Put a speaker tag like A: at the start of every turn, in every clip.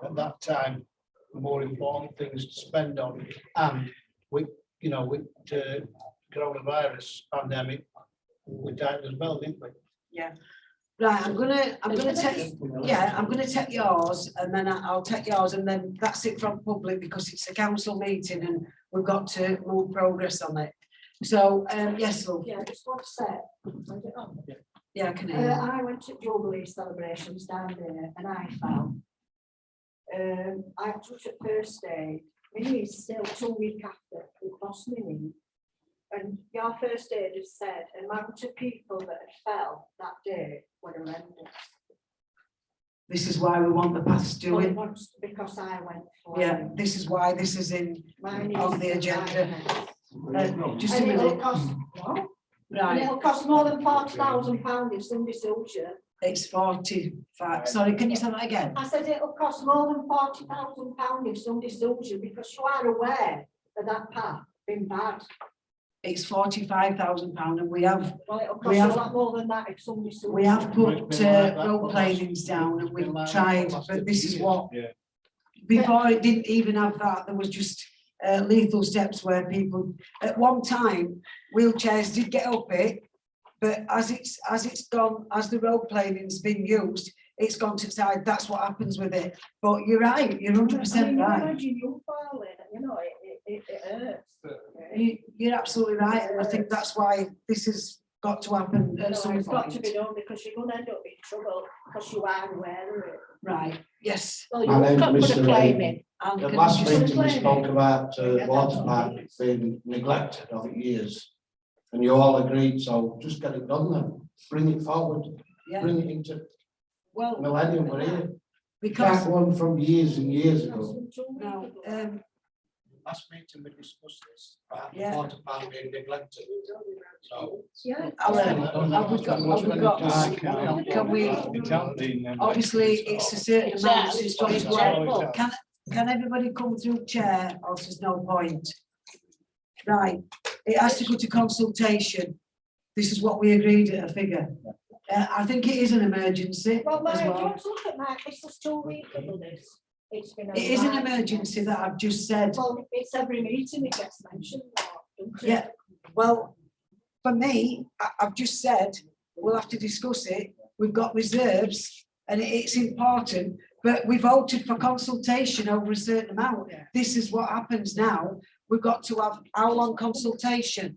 A: got that time, for more important things to spend on. And we, you know, with the coronavirus pandemic, we tightened as well, didn't we?
B: Right, I'm gonna, I'm gonna take, yeah, I'm gonna take yours and then I- I'll take yours and then that's it from public because it's a council meeting and we've got to move progress on it. So, um, yes, Lou,
C: Yeah, just one sec. Put it on.
B: yeah, I can
C: Uh,
B: hear you.
C: I went to Jubilee celebrations down there and I fell. Um, I took it first aid, my knee's still two week after, it lost my knee. And your first aid has said, amount of people that had fell that day were horrendous.
B: This is why we want the paths to
C: But
B: it.
C: once, because I went for
B: Yeah,
C: it,
B: this is why this is in,
C: my knee's
B: On the
C: still
B: agenda.
C: dying.
B: uh, just a
C: And it'll
B: minute,
C: cost, what? And
B: right,
C: it'll cost more than forty thousand pounds if somebody's soldier.
B: it's forty-five, sorry, can you say that again?
C: I said it'll cost more than forty thousand pound if somebody sues you because you are aware that that path been bad.
B: It's forty-five thousand pound and we have,
C: Well, it'll
B: We
C: cost a
B: have-
C: lot more than that if somebody sues.
B: we have put uh, road planings down and we've tried, but this is what
A: Yeah.
B: before it didn't even have that, there was just uh, lethal steps where people, at one time, wheelchairs did get up it. But as it's, as it's gone, as the road planing's been used, it's gone to the side, that's what happens with it. But you're right, you're hundred percent right.
C: Imagine you falling, you know, it, it, it hurts.
B: You, you're absolutely right, and I think that's why this has got to happen at
C: So
B: some
C: it's got to
B: point.
C: be done because you're gonna end up in trouble because you are aware of it.
B: Right, yes.
C: Well,
D: My name's
C: you've got to put a
D: Mr.
C: claim
D: Ray.
C: in.
B: Alan,
D: The
B: can
D: last
B: you-
D: meeting we spoke about uh, water park being neglected over years. And you all agreed, so just get it done then, bring it forward,
B: Yeah,
D: bring it into
B: well,
D: millennium, we're here.
B: because,
D: That one from years and years
C: That's
D: ago.
C: some trouble.
B: no, um,
A: Last meeting we discussed this, about the
B: Yeah.
A: water park being neglected, so.
C: Yeah.
B: Alan, have we got, have we got, can we-
E: It can't be never.
B: obviously, it's a certain amount, so it's got to go out.
E: Exactly.
B: Can, can everybody come through chair, or there's no point? Right, it has to go to consultation. This is what we agreed at a figure. Uh, I think it is an emergency
C: Well,
B: as
C: Mike,
B: well.
C: just look at Mike, this is two weeks ago this. It's been. a
B: It is an
C: while.
B: emergency that I've just said.
C: Well, it's every meeting it gets mentioned. or-
B: Yeah, well, for me, I, I've just said, we'll have to discuss it. We've got reserves and it- it's important, but we voted for consultation over a certain amount. This is what happens now. We've got to have, how long consultation?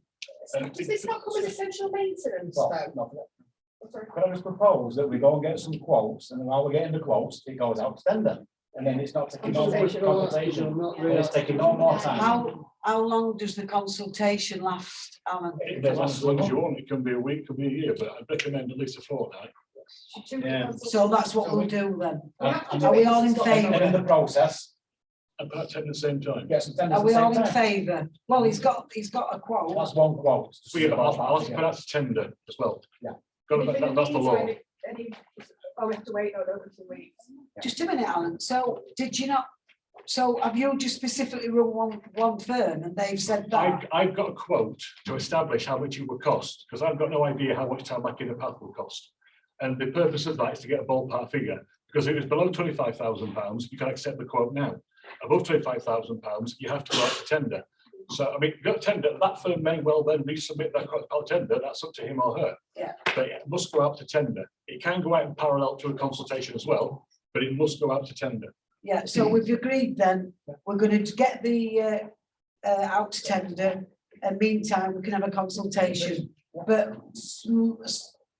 F: Does this not come as essential maintenance
E: Well,
F: though?
E: no, Could I just propose that we go and get some quotes and while we're getting the quotes, it goes out to tender? And then it's not taking no
F: Consultation, all that stuff,
E: consultation, it's taking no more time.
B: How, how long does the consultation last, Alan?
E: It
G: It
E: does
G: can
E: last
G: last as long as you want, it can be a week, it can be a year, but I'd recommend at least a fortnight.
E: Yeah.
B: So that's what we'll do then.
C: We have to
B: Are
C: do
B: we
C: it
B: all in
C: because
E: And then in
B: favour?
E: the process,
G: And perhaps at the same time.
E: get some tenders
B: Are
E: at the
B: we all
E: same
B: in
E: time.
B: favour? Well, he's got, he's got a quote.
E: That's one quote.
G: We have, I'll, i that's tender as well.
E: Yeah.
G: Got that, that- that's the law.
F: Any, oh, we have to wait, no, no, it's a week.
B: Just a minute, Alan. So did you not, so have you just specifically run one, one firm and they've said that?
G: I've, I've got a quote to establish how much it would cost, because I've got no idea how much tarmac in the path will cost. And the purpose of that is to get a ballpark figure, because if it's below twenty-five thousand pounds, you can accept the quote now. Above twenty-five thousand pounds, you have to go out to tender. So, I mean, you've got tender, that firm may well then resubmit that quote out tender, that's up to him or her.
B: Yeah.
G: But it must go out to tender. It can go out in parallel to a consultation as well, but it must go out to tender.
B: Yeah, so we've agreed then, we're going to get the uh, uh, out to tender. And meantime, we can have a consultation, but soo-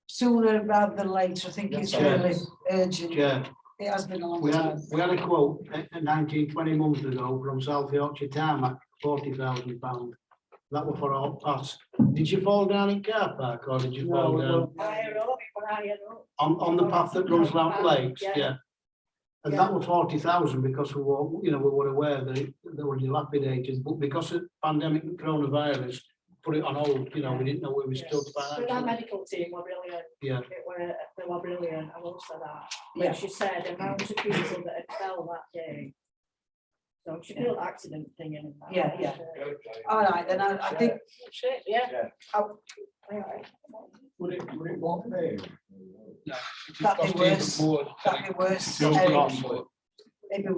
B: sooner rather than later, I think it's really urgent.
A: Yeah,
B: It has been a long
A: we had,
B: time.
A: we had a quote uh, nineteen, twenty months ago from South Yorkshire Tarmac, forty thousand pound. That was for all us. Did you fall down in car park or did you fall down?
C: Higher up, higher up.
A: On, on the path that runs round lakes,
C: Yeah.
A: yeah. And that was forty thousand because we were, you know, we were aware that it- they were dilapidated, but because of pandemic and coronavirus, put it on hold, you know, we didn't know where we stood
C: But our
A: financially.
C: medical team were brilliant.
A: Yeah.
C: They were, they were brilliant, I will say that.
B: Yeah.
C: When she said the amount of people that had fell that day. So she did an accident thing in that.
B: Yeah, yeah. All right, then I, I think,
C: Shit, yeah.
E: Yeah.
B: Oh.
E: Would it, would it walk there?
B: That'd be worse. that'd be worse.
G: No
B: Eric.
G: problem.
B: It'd be